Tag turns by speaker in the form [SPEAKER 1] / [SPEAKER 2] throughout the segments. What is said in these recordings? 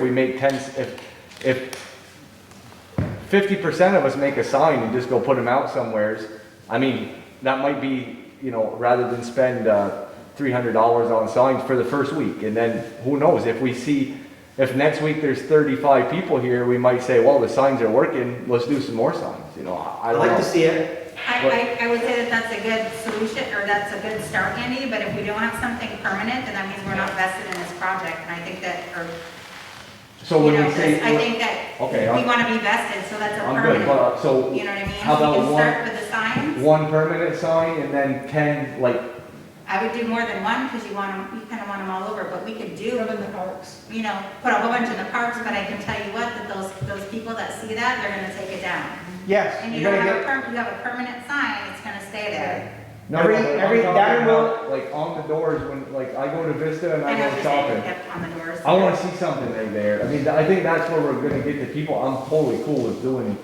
[SPEAKER 1] we make ten, if, if fifty percent of us make a sign and just go put them out somewheres, I mean, that might be, you know, rather than spend, uh, three hundred dollars on signs for the first week, and then who knows, if we see, if next week there's thirty-five people here, we might say, well, the signs are working, let's do some more signs, you know, I I
[SPEAKER 2] I'd
[SPEAKER 1] don't
[SPEAKER 2] like to
[SPEAKER 1] know.
[SPEAKER 2] see it.
[SPEAKER 3] I, I, I would say that that's a good solution, or that's a good start, Andy, but if we don't have something permanent, then that means we're not vested in this project, and I think that, or,
[SPEAKER 1] So
[SPEAKER 3] you
[SPEAKER 1] when
[SPEAKER 3] know,
[SPEAKER 1] we say.
[SPEAKER 3] I think that
[SPEAKER 1] Okay,
[SPEAKER 3] we
[SPEAKER 1] I'm-
[SPEAKER 3] wanna be vested, so that's a
[SPEAKER 1] I'm good,
[SPEAKER 3] permanent,
[SPEAKER 1] but, uh, so,
[SPEAKER 3] you know what I mean?
[SPEAKER 1] how about
[SPEAKER 3] We can start
[SPEAKER 1] one,
[SPEAKER 3] with the signs,
[SPEAKER 1] one permanent sign and then ten, like,
[SPEAKER 3] I would do more than one, because you want them, you kinda want them all over, but we could do,
[SPEAKER 4] Put them in the parks.
[SPEAKER 3] you know, put a whole bunch in the parks, but I can tell you what, that those, those people that see that, they're gonna take it down.
[SPEAKER 2] Yes,
[SPEAKER 3] And you
[SPEAKER 2] you're
[SPEAKER 3] don't
[SPEAKER 2] gonna
[SPEAKER 3] have a
[SPEAKER 2] get,
[SPEAKER 3] perm, you have a permanent sign, it's gonna stay there.
[SPEAKER 1] no,
[SPEAKER 2] Every-
[SPEAKER 1] no, but I'm
[SPEAKER 2] every-
[SPEAKER 1] talking
[SPEAKER 2] that will-
[SPEAKER 1] about, Like, on the doors, when, like, I go to Vista and
[SPEAKER 3] I
[SPEAKER 1] I
[SPEAKER 3] know
[SPEAKER 1] go
[SPEAKER 3] you're saying,
[SPEAKER 1] shopping,
[SPEAKER 3] yep, on the doors.
[SPEAKER 1] I wanna see something in there, I mean, I think that's where we're gonna get the people, I'm totally cool with doing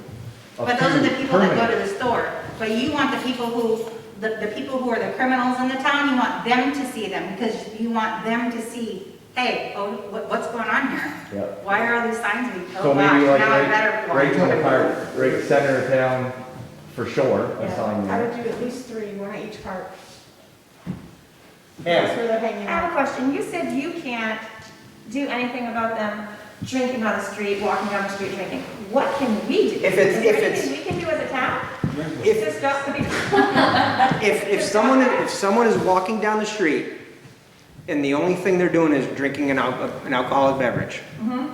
[SPEAKER 1] a
[SPEAKER 3] But those are the
[SPEAKER 1] few
[SPEAKER 3] people that go
[SPEAKER 1] permanent.
[SPEAKER 3] to the store. But you want the people who, the, the people who are the criminals in the town, you want them to see them because you want them to see, hey, oh, what, what's going on here?
[SPEAKER 1] Yeah.
[SPEAKER 3] Why are all these signs being,
[SPEAKER 1] So
[SPEAKER 3] oh wow,
[SPEAKER 1] maybe like
[SPEAKER 3] now I
[SPEAKER 1] right,
[SPEAKER 3] better.
[SPEAKER 1] right in the
[SPEAKER 3] watch."
[SPEAKER 1] park, right center of town, for sure, a sign
[SPEAKER 4] I would
[SPEAKER 1] there.
[SPEAKER 4] do at least three, one at each park.
[SPEAKER 2] Yeah.
[SPEAKER 4] That's where they're
[SPEAKER 5] I
[SPEAKER 4] hanging
[SPEAKER 5] have a
[SPEAKER 4] out.
[SPEAKER 5] question. You said you can't do anything about them drinking on the street, walking down the street drinking. What can we do?
[SPEAKER 2] If it's-
[SPEAKER 5] Is there
[SPEAKER 2] if it's-
[SPEAKER 5] anything We can do as a town?
[SPEAKER 2] If-
[SPEAKER 5] Just stop the people?
[SPEAKER 2] if, if someone, if someone is walking down the street and the only thing they're doing is drinking an al- an alcoholic beverage,
[SPEAKER 3] Mm-hmm.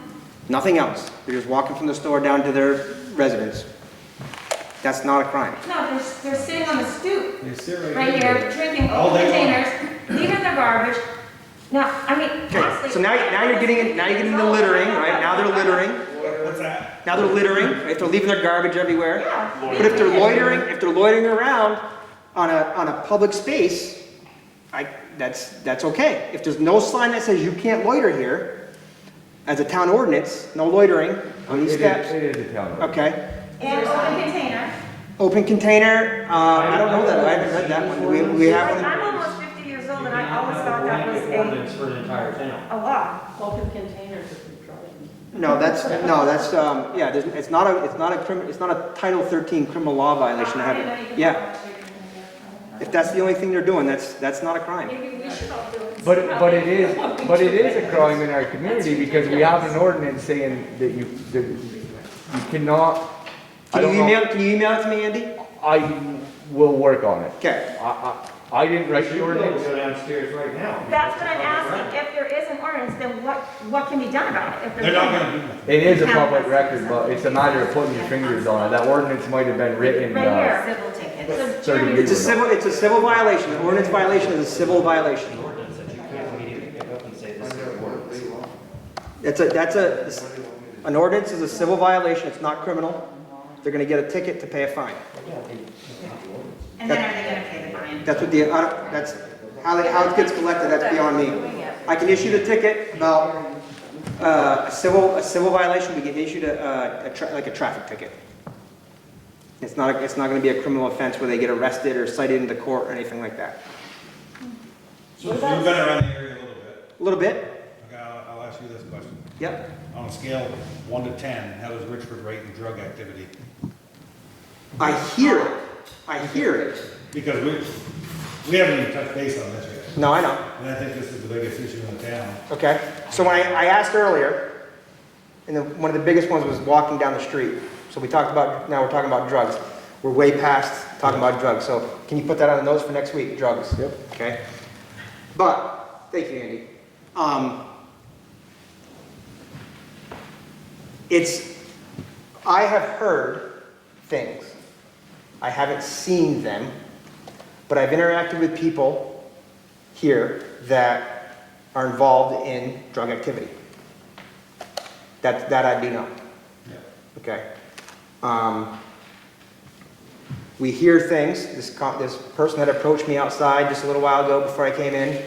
[SPEAKER 2] nothing else, they're just walking from the store down to their residence, that's not a crime.
[SPEAKER 5] No, they're, they're sitting on the stoop
[SPEAKER 6] They sit right
[SPEAKER 5] right here, drinking
[SPEAKER 6] All
[SPEAKER 2] Oh,
[SPEAKER 5] old
[SPEAKER 6] day long.
[SPEAKER 5] containers, leaving their garbage. Now, I mean,
[SPEAKER 2] Okay,
[SPEAKER 5] honestly.
[SPEAKER 2] so now, now you're getting, in- now you're getting into littering, right? Now they're littering,
[SPEAKER 6] What's that?
[SPEAKER 2] now they're littering, right? They're leaving their garbage everywhere.
[SPEAKER 5] Yeah.
[SPEAKER 2] But if they're loitering, if they're loitering around on a, on a public space, I, that's, that's okay. If there's no sign that says you can't loiter here, as a town ordinance, no loitering on
[SPEAKER 1] It
[SPEAKER 2] these
[SPEAKER 1] is-
[SPEAKER 2] steps,
[SPEAKER 1] It is a town. road.
[SPEAKER 2] okay?
[SPEAKER 5] And open container.
[SPEAKER 2] Open container, uh, I don't know that, I haven't read that one, Do we, we have
[SPEAKER 5] Like,
[SPEAKER 2] one.
[SPEAKER 5] I'm almost fifty years old and
[SPEAKER 7] You
[SPEAKER 5] I
[SPEAKER 7] cannot
[SPEAKER 5] always
[SPEAKER 7] have
[SPEAKER 5] thought
[SPEAKER 7] a
[SPEAKER 5] that was
[SPEAKER 7] blanket
[SPEAKER 5] a,
[SPEAKER 7] ordinance for an entire town.
[SPEAKER 5] a law.
[SPEAKER 4] Open containers if you try it.
[SPEAKER 2] No, that's, no, that's, um, yeah, there's, it's not a, it's not a criminal, it's not a Title thirteen criminal law violation to have
[SPEAKER 5] I didn't know you
[SPEAKER 2] it.
[SPEAKER 5] could
[SPEAKER 2] Yeah,
[SPEAKER 5] have a chicken in there.
[SPEAKER 2] if that's the only thing they're doing, that's, that's not a crime.
[SPEAKER 4] Maybe we should all do it.
[SPEAKER 1] But, it- but it is, but it is a crime in our community because we have an ordinance saying that you, that you cannot. I
[SPEAKER 2] Can
[SPEAKER 1] don't
[SPEAKER 2] you
[SPEAKER 1] know.
[SPEAKER 2] email, can you email it to me, Andy?
[SPEAKER 1] I will work on it.
[SPEAKER 2] Okay.
[SPEAKER 1] I, I, I didn't write the ordinance.
[SPEAKER 7] Go downstairs right now.
[SPEAKER 5] That's what I'm asking, if there is an ordinance, then what, what can be done about it? If there's
[SPEAKER 6] They're not
[SPEAKER 5] no-
[SPEAKER 6] gonna do that.
[SPEAKER 1] It is a public record, but it's a matter of putting your fingers on it. That ordinance might have been written,
[SPEAKER 5] Right here.
[SPEAKER 1] uh,
[SPEAKER 3] Civil tickets.
[SPEAKER 5] So
[SPEAKER 1] Thirty
[SPEAKER 5] Jeremy-
[SPEAKER 1] years.
[SPEAKER 2] It's a civil, it's a civil violation, an ordinance violation is a civil violation.
[SPEAKER 7] An ordinance that you can't immediately pick up and say this is an ordinance.
[SPEAKER 2] That's a, that's a, an ordinance is a civil violation, it's not criminal. They're gonna get a ticket to pay a fine.
[SPEAKER 7] Yeah, they- it's not the ordinance.
[SPEAKER 3] And then are they gonna pay the fine?
[SPEAKER 2] That's what the, I don't- that's, how it, how it gets collected, that's beyond me. I can issue the ticket about, uh, a civil, a civil violation, we can issue a, uh, a tra- like a traffic ticket. It's not, it's not gonna be a criminal offense where they get arrested or cited into court or anything like that.
[SPEAKER 6] So so you've been around the area a little bit.
[SPEAKER 2] A little bit,
[SPEAKER 6] Okay, I'll, I'll ask you this question.
[SPEAKER 2] yep.
[SPEAKER 6] On a scale of one to ten, how does Richford rate in drug activity?
[SPEAKER 2] I hear it, I hear it.
[SPEAKER 6] Because we, we haven't even touched base on this yet,
[SPEAKER 2] No, I know.
[SPEAKER 6] and I think this is the biggest issue in the town.
[SPEAKER 2] Okay, so when I, I asked earlier, and then one of the biggest ones was walking down the street. So we talked about, now we're talking about drugs. We're way past talking about drugs, so can you put that on the notes for next week, drugs? Yep. Okay? But, thank you, Andy. Um, it's, I have heard things. I haven't seen them, but I've interacted with people here that are involved in drug activity. That, that I do know,
[SPEAKER 6] Yeah.
[SPEAKER 2] okay? Um, We hear things, this, co- this person that approached me outside just a little while ago before I came in,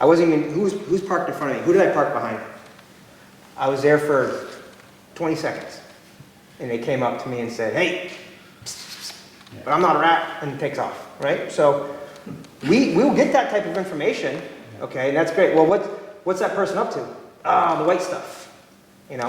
[SPEAKER 2] I wasn't even, who's, who's parked in front of me? Who did I park behind? I was there for 20 seconds, and they came up to me and said, hey, but I'm not a rat, and takes off, right? So we, we'll get that type of information, okay, and that's great. Well, what, what's that person up to? Ah, the white stuff.